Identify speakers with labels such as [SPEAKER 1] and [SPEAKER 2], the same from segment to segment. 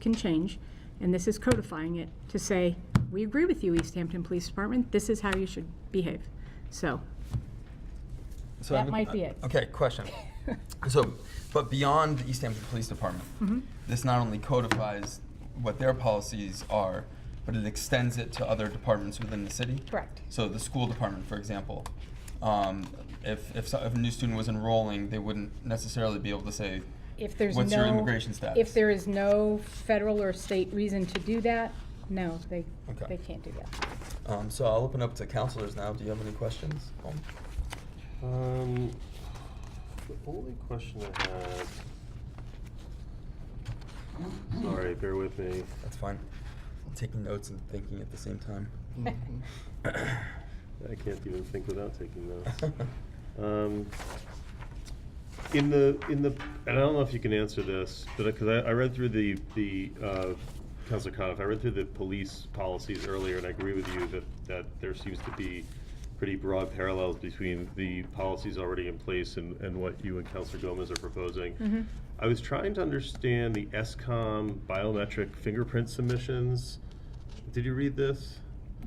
[SPEAKER 1] can change, and this is codifying it to say, we agree with you, East Hampton Police Department, this is how you should behave. So,
[SPEAKER 2] So
[SPEAKER 1] That
[SPEAKER 2] I'm-
[SPEAKER 1] might be it.
[SPEAKER 2] Okay, question. so, but beyond the East Hampton Police Department,
[SPEAKER 1] Mm-hmm.
[SPEAKER 2] this not only codifies what their policies are, but it extends it to other departments within the city.
[SPEAKER 1] Correct.
[SPEAKER 2] So the school department, for example, um, if if, so, if a new student was enrolling, they wouldn't necessarily be able to say,
[SPEAKER 1] if there's no.
[SPEAKER 2] What's your immigration status?
[SPEAKER 1] If there is no federal or state reason to do that, no, they,
[SPEAKER 2] Okay.
[SPEAKER 1] they can't do that.
[SPEAKER 2] Um, so I'll open up to counselors now. Do you have any questions? Um,
[SPEAKER 3] Um, the only question I had. Sorry, bear with me.
[SPEAKER 2] that's fine. I'm taking notes and thinking at the same time.
[SPEAKER 3] Mm-hmm. I can't even think without taking notes. Um, in the, in the, and I don't know if you can answer this, but, because I, I read through the, the, uh, Counselor Coniff, I read through the police policies earlier, and I agree with you that, that there seems to be pretty broad parallels between the policies already in place and, and what you and Counselor Gomez are proposing.
[SPEAKER 1] Mm-hmm.
[SPEAKER 3] I was trying to understand the SCOM biometric fingerprint submissions. Did you read this?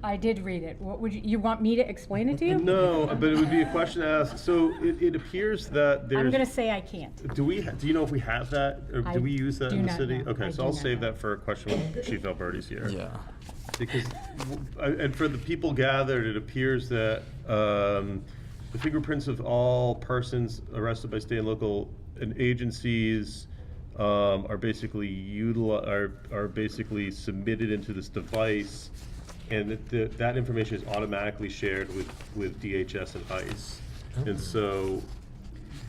[SPEAKER 1] I did read it. What would you, you want me to explain it to you?
[SPEAKER 3] No, but it would be a question to ask. So it, it appears that there's.
[SPEAKER 1] I'm gonna say I can't.
[SPEAKER 3] Do we, ha- do you know if we have that, or
[SPEAKER 1] I
[SPEAKER 3] do we use that
[SPEAKER 1] do
[SPEAKER 3] in the
[SPEAKER 1] not
[SPEAKER 3] city?
[SPEAKER 1] know. I
[SPEAKER 3] Okay,
[SPEAKER 1] do
[SPEAKER 3] so I'll
[SPEAKER 1] not
[SPEAKER 3] save
[SPEAKER 1] know.
[SPEAKER 3] that for a question when Chief Alberti's here.
[SPEAKER 2] Yeah.
[SPEAKER 3] Because, w- I- and for the people gathered, it appears that um, the fingerprints of all persons arrested by state and local and agencies um, are basically utili, are, are basically submitted into this device, and that, the- that information is automatically shared with, with DHS and ICE.
[SPEAKER 1] Oh.
[SPEAKER 3] And so,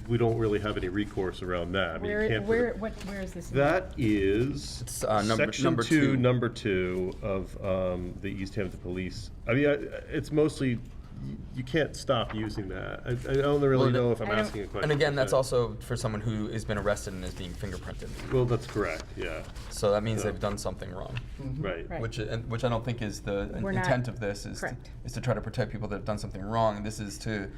[SPEAKER 3] we don't really have any recourse around that. I mean, you
[SPEAKER 1] Where,
[SPEAKER 3] can't put
[SPEAKER 1] where,
[SPEAKER 3] it-
[SPEAKER 1] what, where is this? in the-
[SPEAKER 3] that is
[SPEAKER 2] It's, uh, number-
[SPEAKER 3] section
[SPEAKER 2] number two.
[SPEAKER 3] number two of um, the East Hampton Police. I mean, I, it's mostly you, you can't stop using that. I, I don't
[SPEAKER 2] Well,
[SPEAKER 3] really know if I'm
[SPEAKER 1] I don't-
[SPEAKER 3] asking a question.
[SPEAKER 2] And again, that's
[SPEAKER 3] but-
[SPEAKER 2] also for someone who has been arrested and is being fingerprinted.
[SPEAKER 3] well, that's correct. Yeah,
[SPEAKER 2] So that means they've done something wrong,
[SPEAKER 3] right.
[SPEAKER 1] Mm-hmm. Right.
[SPEAKER 2] which and, which I don't think is the in-
[SPEAKER 1] We're not-
[SPEAKER 2] intent of this. Is to,
[SPEAKER 1] correct.
[SPEAKER 2] is to try to protect people that have done something wrong. And this is to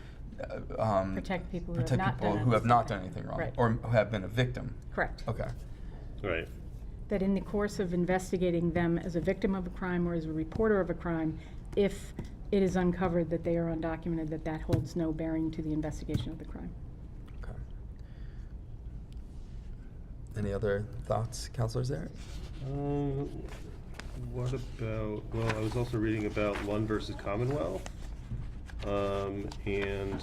[SPEAKER 2] uh, um,
[SPEAKER 1] Protect people who have
[SPEAKER 2] protect
[SPEAKER 1] not
[SPEAKER 2] people
[SPEAKER 1] done
[SPEAKER 2] who have
[SPEAKER 1] anything
[SPEAKER 2] not
[SPEAKER 1] wrong.
[SPEAKER 2] done anything wrong,
[SPEAKER 1] Right.
[SPEAKER 2] or who have been a victim.
[SPEAKER 1] Correct.
[SPEAKER 2] Okay.
[SPEAKER 3] Right.
[SPEAKER 1] That in the course of investigating them as a victim of a crime or as a reporter of a crime, if it is uncovered that they are undocumented, that that holds no bearing to the investigation of the crime.
[SPEAKER 2] Okay. Any other thoughts, counselors? There.
[SPEAKER 3] Um, what about? Well, I was also reading about Lund versus Commonwealth, um, and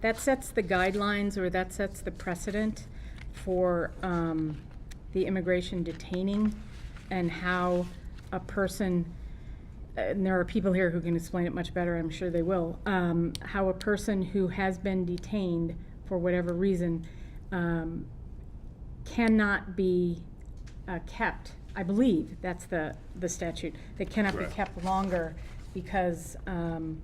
[SPEAKER 1] That sets the guidelines, or that sets the precedent for um, the immigration detaining and how a person, uh, and there are people here who can explain it much better, I'm sure they will, um, how a person who has been detained for whatever reason um, cannot be uh, kept, I believe, that's the, the statute, that cannot be
[SPEAKER 3] Correct.
[SPEAKER 1] kept longer because um,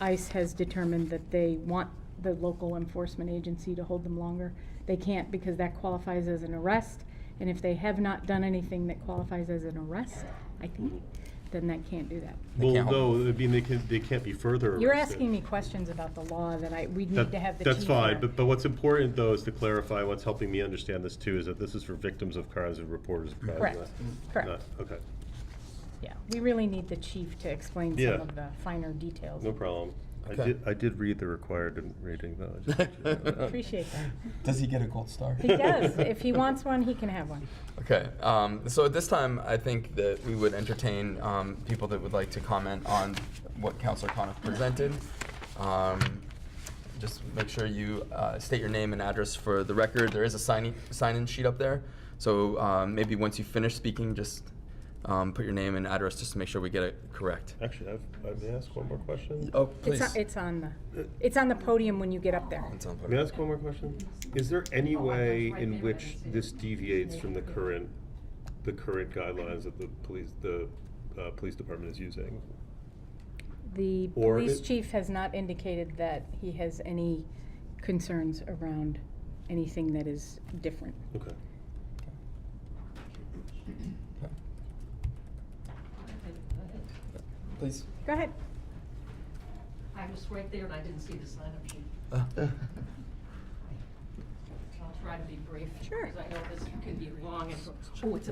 [SPEAKER 1] ICE has determined that they want the local enforcement agency to hold them longer. They can't because that qualifies as an arrest, and if they have not done anything that qualifies as an arrest, I think, then that can't do that.
[SPEAKER 2] They
[SPEAKER 3] well,
[SPEAKER 2] can't
[SPEAKER 3] no, I mean they can they can't be further.
[SPEAKER 1] You're
[SPEAKER 3] arrested.
[SPEAKER 1] asking me questions about the law that I, we'd
[SPEAKER 3] That-
[SPEAKER 1] need to have the chief
[SPEAKER 3] That's fine,
[SPEAKER 1] here.
[SPEAKER 3] but, but what's important though is to clarify, what's helping me understand this too, is that this is for victims of crimes and reporters of crimes.
[SPEAKER 1] Correct.
[SPEAKER 3] not-
[SPEAKER 1] Correct.
[SPEAKER 3] not- Okay,
[SPEAKER 1] Yeah, we really need the chief to explain
[SPEAKER 3] Yeah.
[SPEAKER 1] some of the finer details.
[SPEAKER 3] no problem. I
[SPEAKER 2] Okay.
[SPEAKER 3] did, I did read the required in- reading though. I just want you to know that.
[SPEAKER 1] Appreciate that.
[SPEAKER 2] Does he get a gold star?
[SPEAKER 1] He does. If he wants one, he can have one.
[SPEAKER 2] Okay, um, so at this time, I think that we would entertain um, people that would like to comment on what Councilor Coniff presented. Um, just make sure you uh, state your name and address for the record. There is a sign sign-in sheet up there, so um, maybe once you finish speaking, just um, put your name and address just to make sure we get it correct.
[SPEAKER 3] Actually, I've, I may ask one more question?
[SPEAKER 2] Oh,
[SPEAKER 1] It's
[SPEAKER 2] please.
[SPEAKER 1] on, it's on the, it's on the podium when you get up there.
[SPEAKER 2] It's on
[SPEAKER 3] May I
[SPEAKER 2] purpose.
[SPEAKER 3] ask one more question? Is there any
[SPEAKER 1] Oh,
[SPEAKER 3] way in which this deviates from the current, the current guidelines that the police, the, uh, police department is using?
[SPEAKER 1] The
[SPEAKER 3] Or
[SPEAKER 1] police
[SPEAKER 3] it-
[SPEAKER 1] chief has not indicated that he has any concerns around anything that is different.
[SPEAKER 3] Okay.
[SPEAKER 2] Okay. Please.
[SPEAKER 1] Go ahead.
[SPEAKER 4] I was right there and I didn't see the sign up sheet.
[SPEAKER 2] Uh,
[SPEAKER 4] I'll try to be brief.
[SPEAKER 5] Sure.
[SPEAKER 4] Because I know this could be long and, oh, it's a